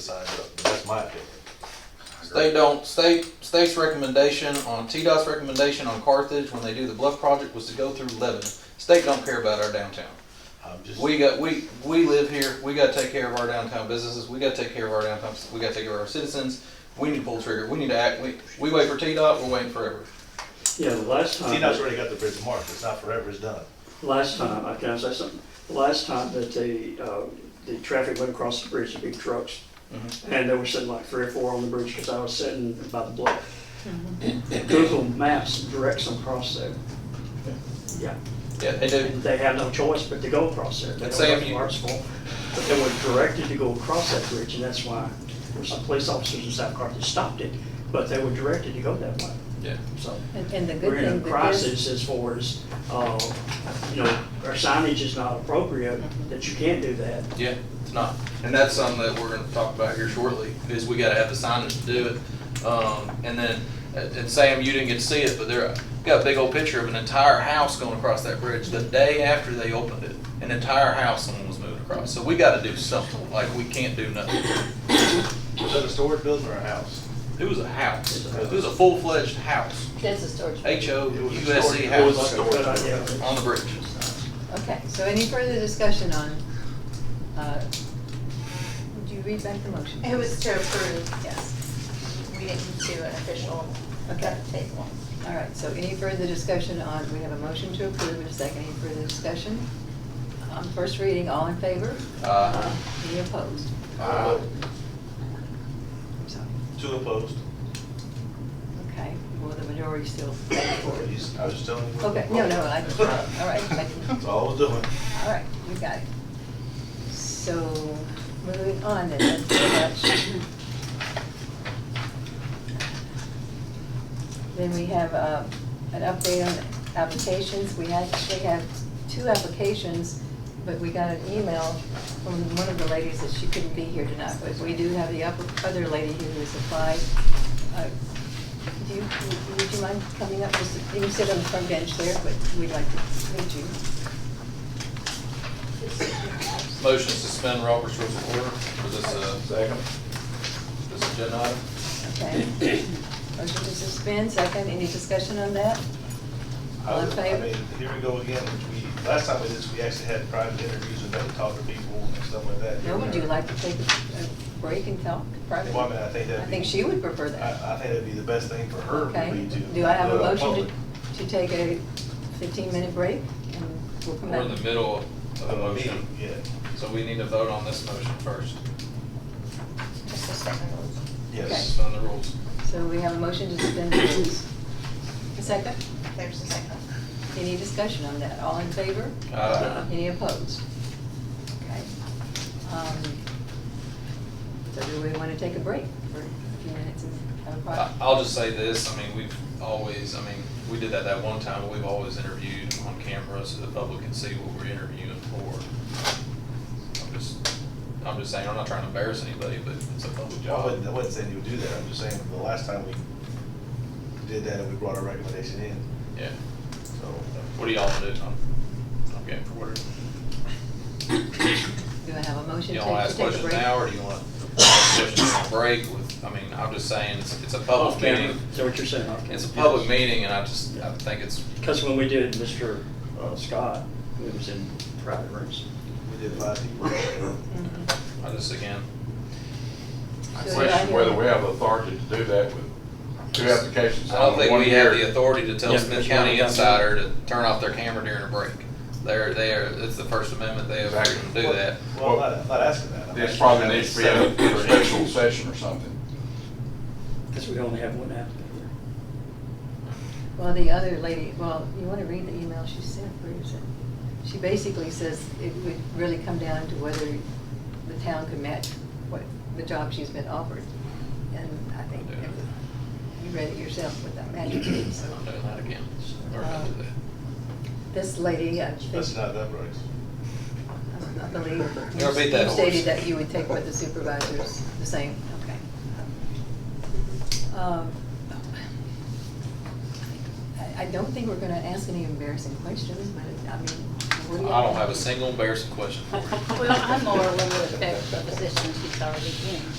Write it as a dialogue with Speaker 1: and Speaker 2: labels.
Speaker 1: signed up, but that's my opinion.
Speaker 2: State don't, state, state's recommendation on, TDOT's recommendation on Carthage when they do the bluff project was to go through Lebanon. State don't care about our downtown.
Speaker 1: I'm just,
Speaker 2: We got, we, we live here, we gotta take care of our downtown businesses, we gotta take care of our downtown, we gotta take care of our citizens. We need to pull the trigger, we need to act, we, we wait for TDOT, we're waiting forever.
Speaker 3: Yeah, the last time,
Speaker 1: TDOT's already got the bridge marked, it's not forever, it's done.
Speaker 3: last time, I can say something, the last time that the, uh, the traffic went across the bridge, the big trucks,
Speaker 2: Mm-hmm.
Speaker 3: and there were sitting like three or four on the bridge, because I was sitting by the block. Google Maps directs them across there. Yeah,
Speaker 2: Yeah, they do.
Speaker 3: and they have no choice but to go across there. They
Speaker 2: Let's
Speaker 3: don't
Speaker 2: say
Speaker 3: have
Speaker 2: if
Speaker 3: to
Speaker 2: you-
Speaker 3: march for it. But they were directed to go across that bridge, and that's why there were some police officers in South Carthage stopped it, but they were directed to go that way,
Speaker 2: Yeah.
Speaker 3: so.
Speaker 4: And and the
Speaker 3: we're in
Speaker 4: good
Speaker 3: a
Speaker 4: thing that this,
Speaker 3: crisis as far as, uh, you know, our signage is not appropriate, that you can't do that.
Speaker 2: Yeah, it's not. And that's something that we're gonna talk about here shortly, is we gotta have the signage to do it. Um, and then, and and Sam, you didn't get to see it, but there, got a big old picture of an entire house going across that bridge the day after they opened it. An entire house someone was moving across. So we gotta do something, like we can't do nothing.
Speaker 1: Was that a storage building or a house?
Speaker 2: It was a house. It was a full-fledged house,
Speaker 4: that's a storage.
Speaker 2: H O
Speaker 1: It was a
Speaker 2: Oh, U S C
Speaker 1: storage-
Speaker 2: house.
Speaker 1: it was a storage
Speaker 3: Good idea.
Speaker 2: On the bridge.
Speaker 4: Okay, so any further discussion on, uh, would you read back the motion?
Speaker 5: It was to approve,
Speaker 4: Yes,
Speaker 5: we didn't do an official
Speaker 4: Okay.
Speaker 5: table.
Speaker 4: all right, so any further discussion on, we have a motion to approve and a second, any further discussion? On first reading, all in favor?
Speaker 2: Uh,
Speaker 4: Any opposed?
Speaker 1: Uh,
Speaker 4: I'm sorry,
Speaker 1: Two opposed.
Speaker 4: okay, well, the majority still voted for
Speaker 1: You
Speaker 4: it.
Speaker 1: s- I was just telling you. what-
Speaker 4: Okay, no, no, I, all right, thank you.
Speaker 1: That's all I was doing.
Speaker 4: All right, we got it. So, moving on then, that's pretty much. Then we have uh, an update on applications. We actually have two applications, but we got an email from one of the ladies that she couldn't be here tonight. But we do have the upper- other lady who has applied. Uh, Do you, would you mind coming up? Just- You can sit on the front bench there, but we'd like to meet you.
Speaker 2: motion to suspend Robert's rules of order. Was this a? Second. This agenda item?
Speaker 4: Okay. Motion to suspend, second, any discussion on that?
Speaker 1: I
Speaker 4: All in
Speaker 1: would-
Speaker 4: favor?
Speaker 1: I mean, here we go again, which we, last time we did this, we actually had private interviews and had to talk to people and stuff like that.
Speaker 4: No, would you like to take a break and talk privately?
Speaker 1: Well, I mean, I think that'd
Speaker 4: I
Speaker 1: be-
Speaker 4: think she would prefer that.
Speaker 1: I, I think that'd be the best thing for her, would
Speaker 4: Okay,
Speaker 1: be Uh, to.
Speaker 4: do I have a
Speaker 1: do it out
Speaker 4: motion
Speaker 1: public.
Speaker 4: to, to take a fifteen-minute break? and we'll come
Speaker 2: We're in the
Speaker 4: back?
Speaker 2: middle of a
Speaker 1: Of a
Speaker 2: motion,
Speaker 1: meeting, Uh, yeah,
Speaker 2: so we need to vote on this motion first,
Speaker 5: Just a second.
Speaker 1: yes.
Speaker 2: suspend the rules.
Speaker 4: So we have a motion to suspend the rules. A second,
Speaker 5: There's a second.
Speaker 4: any discussion on that, all in favor?
Speaker 2: Uh,
Speaker 4: Any opposed? Okay. Um, So do we want to take a break for a few minutes and have a
Speaker 2: I-
Speaker 4: quiet?
Speaker 2: I'll just say this, I mean, we've always, I mean, we did that that one time, but we've always interviewed on camera so the public can see what we're interviewing for. I'm just, I'm just saying, I'm not trying to embarrass anybody, but it's a public
Speaker 1: Well, I wouldn't, I
Speaker 2: job.
Speaker 1: wouldn't say you would do that, I'm just saying, the last time we did that, and we brought our recommendation in,
Speaker 2: Yeah,
Speaker 1: so.
Speaker 2: what do y'all want to do? I'm, I'm game for whatever.
Speaker 4: Do I have a motion
Speaker 2: You
Speaker 4: to
Speaker 2: wanna
Speaker 4: to
Speaker 2: ask
Speaker 4: take a
Speaker 2: questions
Speaker 4: break?
Speaker 2: now, or do you want questions on break with, I mean, I'm just saying, it's, it's a public
Speaker 3: Off camera.
Speaker 2: meeting.
Speaker 3: Is that what you're saying? off camera?
Speaker 2: It's a public meeting, and I just, I think it's,
Speaker 3: Because when we did Mr. uh, Scott, it was in private rooms.
Speaker 1: We did five people.
Speaker 4: Mhm.
Speaker 2: I just, again,
Speaker 6: I
Speaker 4: So
Speaker 6: question
Speaker 4: do I hear-
Speaker 6: whether we have authority to do that with two applications.
Speaker 2: I don't think
Speaker 6: on
Speaker 2: we
Speaker 6: one
Speaker 2: have
Speaker 6: year.
Speaker 2: the authority to tell
Speaker 3: Yeah,
Speaker 2: Smith
Speaker 3: that's
Speaker 2: County
Speaker 3: right.
Speaker 2: Insider to turn off their camera during a break. They're, they're, it's the First Amendment, they have the freedom to do that.
Speaker 1: Well, I'm not, I'm not asking that. I'm
Speaker 6: This
Speaker 1: asking
Speaker 6: probably
Speaker 1: that we
Speaker 6: needs to be
Speaker 1: set
Speaker 6: a
Speaker 1: up for
Speaker 6: a special
Speaker 1: each.
Speaker 6: session or something.
Speaker 3: Because we only have one applicant here.
Speaker 4: Well, the other lady, well, you want to read the email she sent, where is it? She basically says it would really come down to whether the town could match what, the job she's been offered. And I think it was- you read it yourself with that magic,
Speaker 2: So
Speaker 4: so.
Speaker 2: I'm doing that again. We're gonna do
Speaker 4: This lady, I think.
Speaker 1: That's not that right.
Speaker 4: I believe.
Speaker 2: You're gonna beat that
Speaker 4: you
Speaker 2: horse.
Speaker 4: Stated that you would take with the supervisors, the same, okay. Um, I, I don't think we're gonna ask any embarrassing questions, but I mean, what
Speaker 2: that.
Speaker 4: do you?
Speaker 2: I don't have a single embarrassing question for you.
Speaker 7: Well, I'm more a little bit better for the position she's already in.